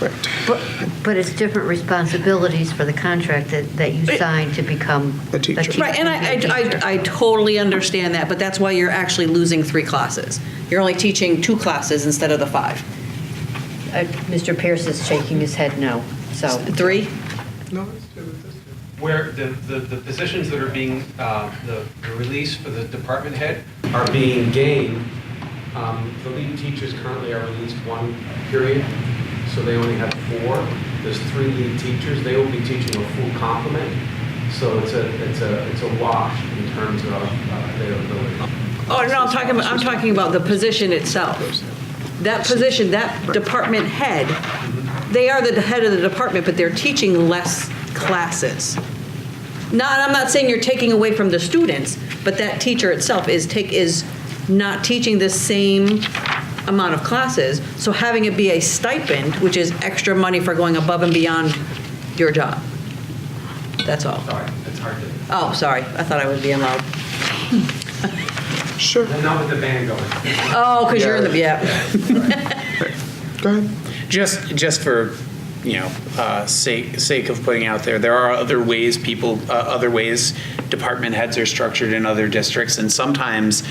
Right. But but it's different responsibilities for the contract that that you sign to become A teacher. Right, and to be I, a I- teacher. I, I totally understand that, but that's why you're actually losing three classes. You're only teaching two classes instead of the five. Uh, Mr. Pierce is shaking his head no, so. Three? where the, the, the positions that are being, uh, the the release for the department head are being gained. Um, The lead teachers currently are released one period, so they only have four. There's three lead teachers, they will be teaching a full complement, so it's a, it's a, it's a wash in terms of uh, their ability. Oh, no, I'm talking, about I'm talking about the position itself. That position, that department head, they are the head of the department, but they're teaching less classes. Not, I'm not saying you're taking away from the students, but that teacher itself is take, is not teaching the same amount of classes. So having it be a stipend, which is extra money for going above and beyond your job. That's all. Sorry, it's hard to, Oh, sorry, I thought I was being loud. Sure. not with the band going. Oh, because you're in the, yeah. Go ahead. Just, just for, you know, uh, sake, sake of putting out there, there are other ways people, uh, other ways department heads are structured in other districts, and sometimes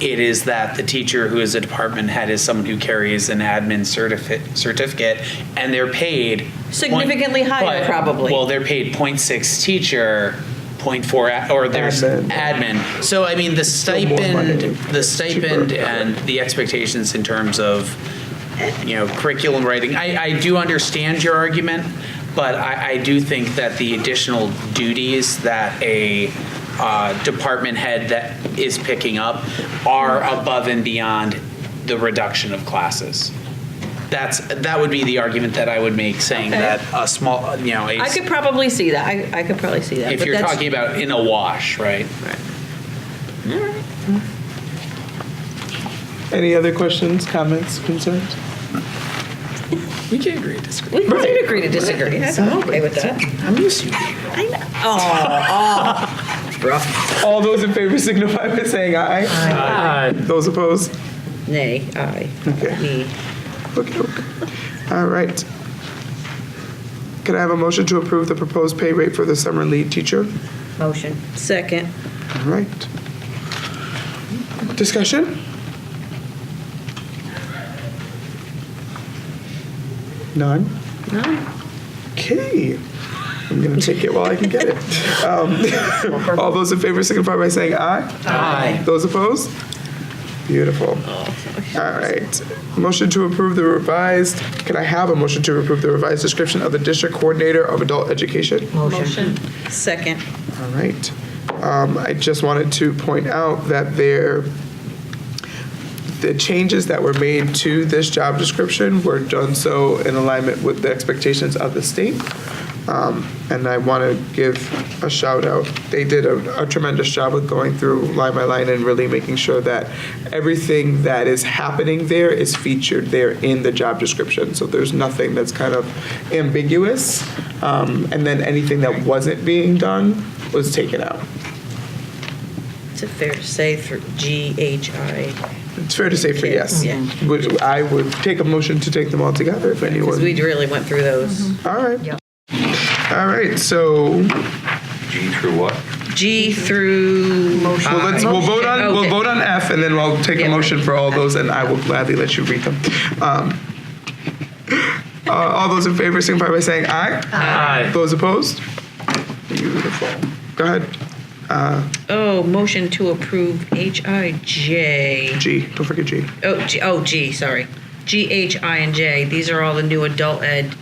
it is that the teacher who is a department head is someone who carries an admin certificate, certificate, and they're paid. point- Significantly higher, but- probably. Well, they're paid point six teacher, point four, a- or there's Admin. admin. So I mean, the more money, stipend, the stipend cheaper. and the expectations in terms of, you know, curriculum writing. I, I do understand your argument, but I, I do think that the additional duties that a uh, department head that is picking up are above and beyond the reduction of classes. That's, that would be the argument that I would make, saying Okay. that a small, you know, a- I could probably see that. I, I could probably see that. if but you're that's- talking about in a wash, right? Any other questions, comments, concerns? We can agree to disagree. We can agree to disagree. I'm okay with that. I'm used to you. All those in favor signify by saying aye. Aye. Those opposed? Nay, aye. Okay. Me. Okay. All right. Could I have a motion to approve the proposed pay rate for the summer lead teacher? Motion. Second. All right. Discussion? None? None. Okay. I'm going to take it while I can get it. Um, All those in favor signify by saying aye. Aye. Those opposed? Beautiful. All right. Motion to approve the revised, can I have a motion to approve the revised description of the district coordinator of adult education? Motion. Second. All right. Um, I just wanted to point out that there, the changes that were made to this job description were done so in alignment with the expectations of the state. Um, and I want to give a shout out. They did a, a tremendous job with going through line by line and really making sure that everything that is happening there is featured there in the job description. So there's nothing that's kind of ambiguous. Um, and then anything that wasn't being done was taken out. Is it fair to say through G H I? It's fair to say for yes. Yeah. Would- I would take a motion to take them all together if Because anyone. we really went through those. All right. Yep. All right. So G through what? G through. Motion. Well, let's, we'll vote on, we'll Uh, Okay. vote on F, and then I'll take a Yeah. motion for all those, and I will gladly let you read them. Um, uh, All those in favor signify by saying aye. Aye. Those opposed? Beautiful. Go ahead, Oh, motion to approve H I J. G, don't forget G. Oh, G, oh, G, sorry. G H I and J. These are all the new adult ed.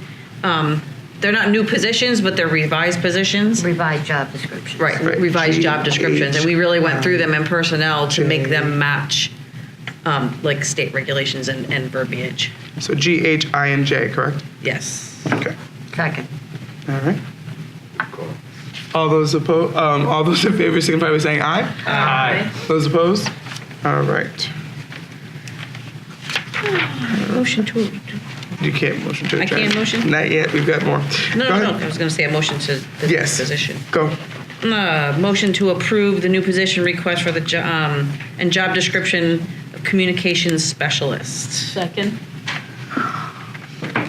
Um, they're not new positions, but they're revised positions. Revised job description. Right, Right. revised job G, descriptions, and we really went through them in personnel to make J. them match, um, like state regulations and, and verbiage. So G, H, I, and J, correct? Yes. Okay, Second. all right. All those opposed, um, all those in favor signify by saying aye. Aye. Those opposed? All right. Motion to. You can't motion to I adjourn. can't motion? Not yet, we've got more. No, Go no, ahead. no, I was gonna say a motion to the new Yes. position. Go. Uh, motion to approve the new position request for the, jo- um, and job description of communications specialist. Second.